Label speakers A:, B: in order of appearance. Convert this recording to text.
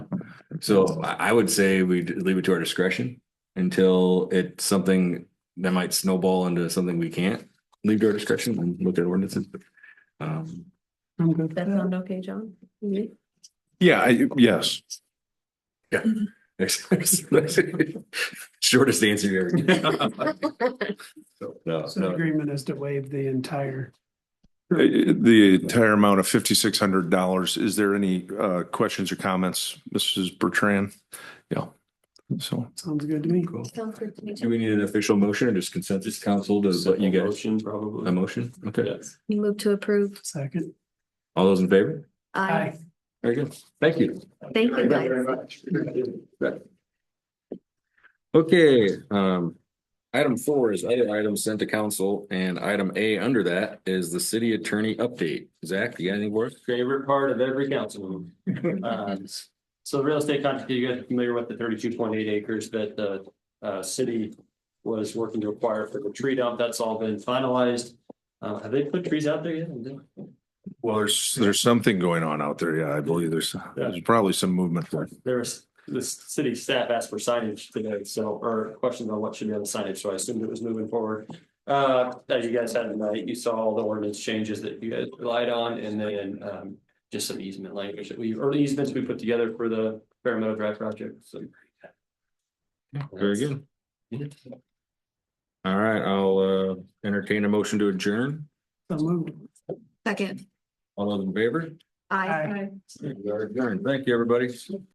A: So I, I would say we leave it to our discretion until it's something that might snowball into something we can't leave to our discretion and look at ordinances. Um,
B: I'm good.
C: That sound okay, John?
D: Yeah, I, yes.
A: shortest answer you ever get. So, no,
B: So the
A: no.
B: agreement is to waive the entire,
D: Uh, The entire amount of fifty-six hundred dollars. Is there any uh, questions or comments, Mrs. Bertrand? Yeah. So
B: sounds good to me.
A: Cool. Do we need an official motion or just consensus council to let you guys, Um,
E: Motion
A: a
E: probably.
A: motion? Okay,
E: Yes.
C: You move to approve.
B: Second.
A: all those in favor?
C: Aye.
A: Very good. Thank you.
C: Thank you guys.
A: Okay, um, item four is other items sent to council and item A under that is the city attorney update. Zach, you got anything for us?
E: Favorite part of every council meeting. Um, So real estate contract, you guys are familiar with the thirty-two point eight acres that the uh city was working to acquire for the tree dump. That's all been finalized. Uh, have they put trees out there yet?
D: Well, there's, there's something going on out there. Yeah, I believe there's, there's probably some movement there.
E: There was, the city staff asked for signage today, so, or questions on what should be on the signage, so I assumed it was moving forward. Uh, as you guys had tonight, you saw all the ordinance changes that you guys relied on, and then, um, just some easement language that we, or easements we put together for the Fair Meadow Drive project, so.
A: Very good. All right, I'll uh entertain a motion to adjourn.
B: So moved.
C: Second.
A: All those in favor?
C: Aye.
B: Aye.
A: We are adjourned. Thank you, everybody.